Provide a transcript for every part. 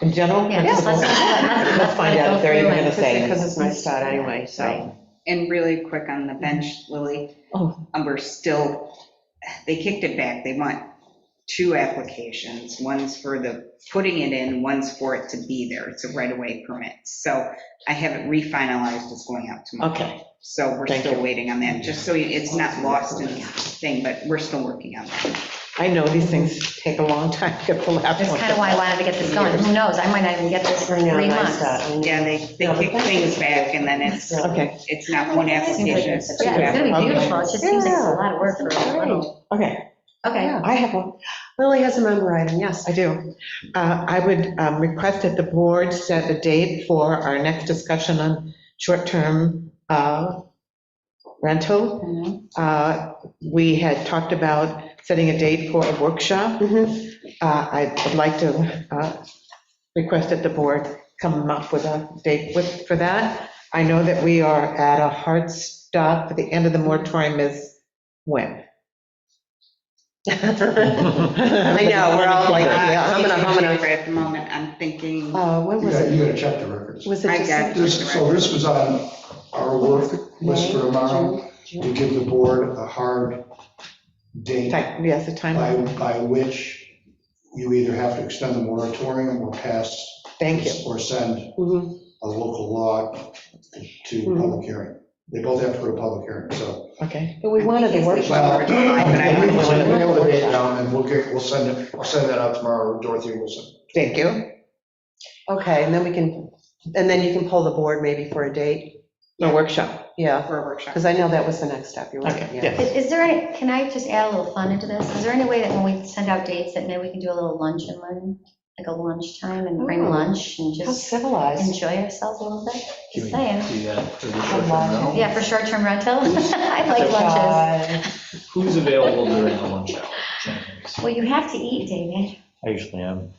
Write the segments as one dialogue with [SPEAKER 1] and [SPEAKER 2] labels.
[SPEAKER 1] In general
[SPEAKER 2] Yeah, just
[SPEAKER 1] principles,
[SPEAKER 2] let's-
[SPEAKER 1] let's find out if they're even going to say
[SPEAKER 3] Because
[SPEAKER 1] it.
[SPEAKER 3] it's my spot anyway, so.
[SPEAKER 4] And really quick on
[SPEAKER 3] Mm-hmm.
[SPEAKER 4] the bench, Lily,
[SPEAKER 1] Oh.
[SPEAKER 4] um, we're still, they kicked it back. They want two applications. One's for the putting it in, one's for it to be there. It's a right-of-way permit. So I haven't refinalized. It's going out tomorrow.
[SPEAKER 1] Okay,
[SPEAKER 4] So we're
[SPEAKER 1] Thank
[SPEAKER 4] still
[SPEAKER 1] you.
[SPEAKER 4] waiting on that, just so it's not lost in the thing, but we're still working on that.
[SPEAKER 1] I know these things take a long time to get the lap.
[SPEAKER 2] That's kind of why I wanted to get this going. Who knows? I might not even get this for three months.
[SPEAKER 4] Yeah, they, they kick things back and then it's,
[SPEAKER 1] uh, Okay,
[SPEAKER 4] it's not one application, it's two
[SPEAKER 2] Yeah, it's gonna be beautiful. It just seems like it's a lot of work for a little.
[SPEAKER 1] okay,
[SPEAKER 2] Okay,
[SPEAKER 1] I have one,
[SPEAKER 3] Lily has a member item, yes.
[SPEAKER 1] I do. Uh, I would um, request that the board set a date for our next discussion on short-term uh, rental.
[SPEAKER 4] applications.
[SPEAKER 1] Uh, We had talked about setting a date for a workshop.
[SPEAKER 3] Mhm.
[SPEAKER 1] Uh, I would like to uh, request that the board come up with a date with- for that. I know that we are at a hard stop, the end of the moratorium is when?
[SPEAKER 3] I
[SPEAKER 1] I
[SPEAKER 3] know, we're all like, "Ah,
[SPEAKER 1] yeah.
[SPEAKER 3] I'm gonna, I'm gonna.
[SPEAKER 4] At the moment, I'm thinking,
[SPEAKER 3] Uh, when
[SPEAKER 5] You
[SPEAKER 3] was
[SPEAKER 5] got,
[SPEAKER 3] it?
[SPEAKER 5] you got to check the records.
[SPEAKER 3] Was
[SPEAKER 4] I
[SPEAKER 3] it
[SPEAKER 4] got
[SPEAKER 3] just?
[SPEAKER 4] it.
[SPEAKER 5] This, so this was on our work list for tomorrow, to give the board a hard date
[SPEAKER 1] Ti- Yes, the time,
[SPEAKER 5] by, by which you either have to extend the moratorium or pass
[SPEAKER 1] thank you.
[SPEAKER 5] or send
[SPEAKER 3] Mhm.
[SPEAKER 5] a local law to public hearing. They both have to go to public hearing, so.
[SPEAKER 1] Okay,
[SPEAKER 3] But we wanted the workshop.
[SPEAKER 5] Well, we can
[SPEAKER 3] wouldn't-
[SPEAKER 5] nail the date down and we'll get, we'll send it, I'll send that out tomorrow, Dorothy Wilson.
[SPEAKER 1] thank you.
[SPEAKER 3] Okay, and then we can, and then you can pull the board maybe for a date.
[SPEAKER 1] No workshop.
[SPEAKER 3] Yeah,
[SPEAKER 4] for a workshop.
[SPEAKER 3] because I know that was the next step. You're right.
[SPEAKER 1] Okay, yes.
[SPEAKER 2] is is there any, can I just add a little fun into this? Is there any way that when we send out dates that maybe we can do a little lunch and learn, like a lunchtime and bring
[SPEAKER 4] Oh,
[SPEAKER 3] Ooh.
[SPEAKER 2] lunch and
[SPEAKER 3] How
[SPEAKER 2] just
[SPEAKER 3] civilized.
[SPEAKER 2] enjoy ourselves a little bit?
[SPEAKER 6] Can
[SPEAKER 2] Just
[SPEAKER 6] we
[SPEAKER 2] saying.
[SPEAKER 6] do that for the
[SPEAKER 3] A
[SPEAKER 6] short-term
[SPEAKER 3] lot.
[SPEAKER 6] rental?
[SPEAKER 2] Yeah, for short-term rental. I like lunches.
[SPEAKER 6] Who's available during the lunch hour?
[SPEAKER 2] Well, you have to eat, David.
[SPEAKER 6] I usually am.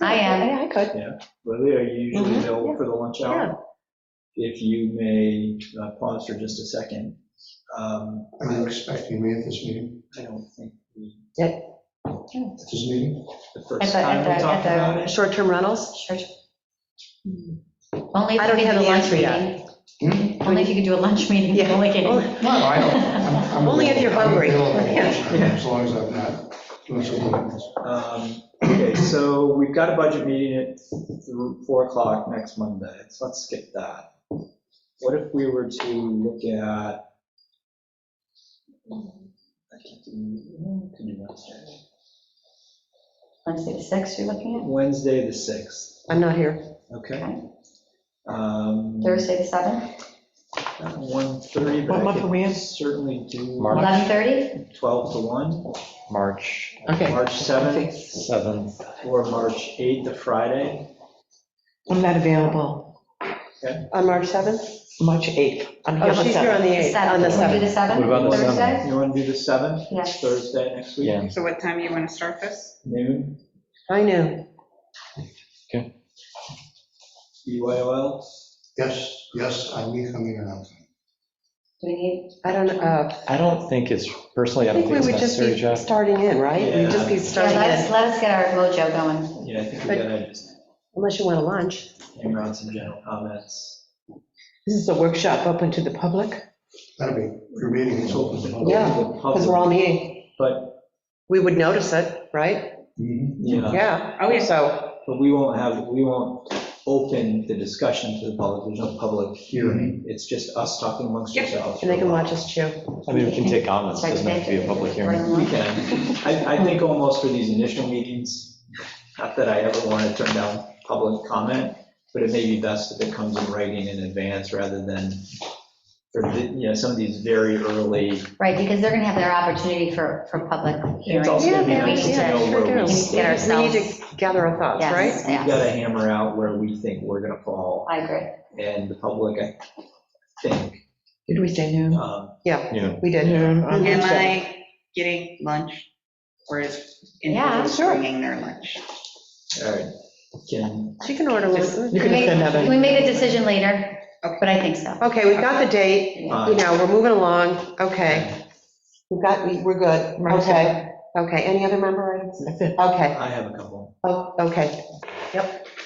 [SPEAKER 2] I am.
[SPEAKER 3] Yeah, I could.
[SPEAKER 6] Lily, are you usually
[SPEAKER 3] Mhm,
[SPEAKER 6] available for the lunch hour? If you may uh, pause for just a second. Um,
[SPEAKER 5] Are you expecting me at this meeting,
[SPEAKER 6] I don't think we-
[SPEAKER 5] at this meeting?
[SPEAKER 6] the
[SPEAKER 2] At the-
[SPEAKER 6] first time
[SPEAKER 2] at the-
[SPEAKER 6] we
[SPEAKER 2] at
[SPEAKER 6] talked
[SPEAKER 2] the-
[SPEAKER 6] about it.
[SPEAKER 3] Short-term rentals?
[SPEAKER 2] Sure. Only
[SPEAKER 3] I
[SPEAKER 2] if you
[SPEAKER 3] don't
[SPEAKER 2] could
[SPEAKER 3] have
[SPEAKER 2] do a
[SPEAKER 3] the
[SPEAKER 2] lunch
[SPEAKER 3] answer yet.
[SPEAKER 2] meeting.
[SPEAKER 5] Hmm?
[SPEAKER 2] Only if you could do a lunch meeting.
[SPEAKER 3] Yeah.
[SPEAKER 2] Only kidding.
[SPEAKER 3] Only-
[SPEAKER 5] No, I don't, I'm- I'm
[SPEAKER 3] Only if you're
[SPEAKER 5] available. I'm
[SPEAKER 3] hungry.
[SPEAKER 5] available, As long as I'm not doing something else.
[SPEAKER 6] Um, Okay, so we've got a budget meeting at th- 4 o'clock next Monday, so let's skip that. What if we were to look at? I can't do, I can do Wednesday.
[SPEAKER 2] Wednesday the 6th you're looking
[SPEAKER 6] Wednesday, the 6th,
[SPEAKER 3] I'm not here.
[SPEAKER 6] okay? Um,
[SPEAKER 2] at? Thursday the 7th?
[SPEAKER 1] What
[SPEAKER 6] 1:30, but
[SPEAKER 1] month
[SPEAKER 6] I
[SPEAKER 1] are we in?
[SPEAKER 6] could certainly do
[SPEAKER 7] March.
[SPEAKER 2] 11:30?
[SPEAKER 6] 12 to 1,
[SPEAKER 7] March
[SPEAKER 1] Okay.
[SPEAKER 6] March 7th,
[SPEAKER 7] 7th.
[SPEAKER 6] or March 8th, the Friday.
[SPEAKER 1] I'm not available
[SPEAKER 3] On March 7th?
[SPEAKER 1] March 8th. I'm
[SPEAKER 3] Oh, she's here on the 8th, on the 7th.
[SPEAKER 2] 7th. Do the 7th?
[SPEAKER 7] What about the
[SPEAKER 2] Thursday?
[SPEAKER 7] 7th?
[SPEAKER 6] You want to do the 7th?
[SPEAKER 2] Yes.
[SPEAKER 6] Thursday next week?
[SPEAKER 7] Yeah.
[SPEAKER 4] So what time you want to start this?
[SPEAKER 6] Noon,
[SPEAKER 3] I knew.
[SPEAKER 6] BYOL?
[SPEAKER 5] Yes, yes, I will come in and out.
[SPEAKER 2] Do we need,
[SPEAKER 3] I don't, uh,
[SPEAKER 7] I don't think it's, personally,
[SPEAKER 3] I
[SPEAKER 7] I don't
[SPEAKER 3] think we
[SPEAKER 7] think
[SPEAKER 3] would
[SPEAKER 7] it's
[SPEAKER 3] just
[SPEAKER 7] necessary,
[SPEAKER 3] be
[SPEAKER 7] Jeff.
[SPEAKER 3] starting in, right? We'd just be
[SPEAKER 6] Yeah.
[SPEAKER 2] yeah,
[SPEAKER 3] starting
[SPEAKER 2] let us,
[SPEAKER 3] in,
[SPEAKER 2] let us get our mojo going.
[SPEAKER 6] Yeah, I think we
[SPEAKER 3] But-
[SPEAKER 6] gotta just
[SPEAKER 3] unless you want to lunch.
[SPEAKER 6] hang around some general comments.
[SPEAKER 1] This is a workshop open to the public?
[SPEAKER 5] That'll be, your meeting is open. to the public.
[SPEAKER 3] Yeah,
[SPEAKER 6] The
[SPEAKER 3] Because we're all
[SPEAKER 6] public,
[SPEAKER 3] meeting.
[SPEAKER 6] But,
[SPEAKER 3] We would notice it, right?
[SPEAKER 5] Mhm.
[SPEAKER 6] yeah,
[SPEAKER 3] Yeah.
[SPEAKER 4] Oh, yes.
[SPEAKER 3] So,
[SPEAKER 6] but we won't have, we won't open the discussion to the public, there's no public hearing. It's just us talking amongst
[SPEAKER 4] Yep.
[SPEAKER 6] ourselves.
[SPEAKER 3] and they can watch us chew.
[SPEAKER 7] I mean, we can take comments, doesn't have to be a public hearing.
[SPEAKER 6] We can. I, I think almost for these initial meetings, not that I ever want to turn down public comment, but it may be best if it comes in writing in advance rather than, for, the- you know, some of these very early
[SPEAKER 2] Right, because they're going to have their opportunity for, for public hearings.
[SPEAKER 6] It's also gonna be
[SPEAKER 3] Yeah,
[SPEAKER 6] nice to
[SPEAKER 3] yeah,
[SPEAKER 6] know
[SPEAKER 3] sure
[SPEAKER 6] where
[SPEAKER 3] do.
[SPEAKER 6] we
[SPEAKER 2] Get
[SPEAKER 6] stand.
[SPEAKER 3] We
[SPEAKER 2] ourselves.
[SPEAKER 3] need to gather our thoughts,
[SPEAKER 2] Yes,
[SPEAKER 3] right?
[SPEAKER 6] We've got to
[SPEAKER 2] yes.
[SPEAKER 6] hammer out where we think we're going to fall,
[SPEAKER 2] I agree.
[SPEAKER 6] and the public, I think,
[SPEAKER 1] Did we say noon?
[SPEAKER 6] um,
[SPEAKER 7] Yeah.
[SPEAKER 3] We did.
[SPEAKER 1] Noon on
[SPEAKER 4] Am
[SPEAKER 1] March 7th.
[SPEAKER 4] I getting lunch? Or is
[SPEAKER 2] Yeah,
[SPEAKER 4] individuals
[SPEAKER 3] sure.
[SPEAKER 4] bringing their lunch?
[SPEAKER 6] all right, can,
[SPEAKER 3] She can order one.
[SPEAKER 1] You can
[SPEAKER 2] We
[SPEAKER 1] send
[SPEAKER 2] make-
[SPEAKER 1] that in.
[SPEAKER 2] We make a decision later, but I think so.
[SPEAKER 3] Okay, we've got the date, you
[SPEAKER 6] fine.
[SPEAKER 3] know, we're moving along, okay. We've got, we- we're good,
[SPEAKER 1] March
[SPEAKER 3] okay, okay, any other member items?
[SPEAKER 1] That's it.
[SPEAKER 3] Okay,
[SPEAKER 6] I have a couple.
[SPEAKER 3] oh, okay, yep,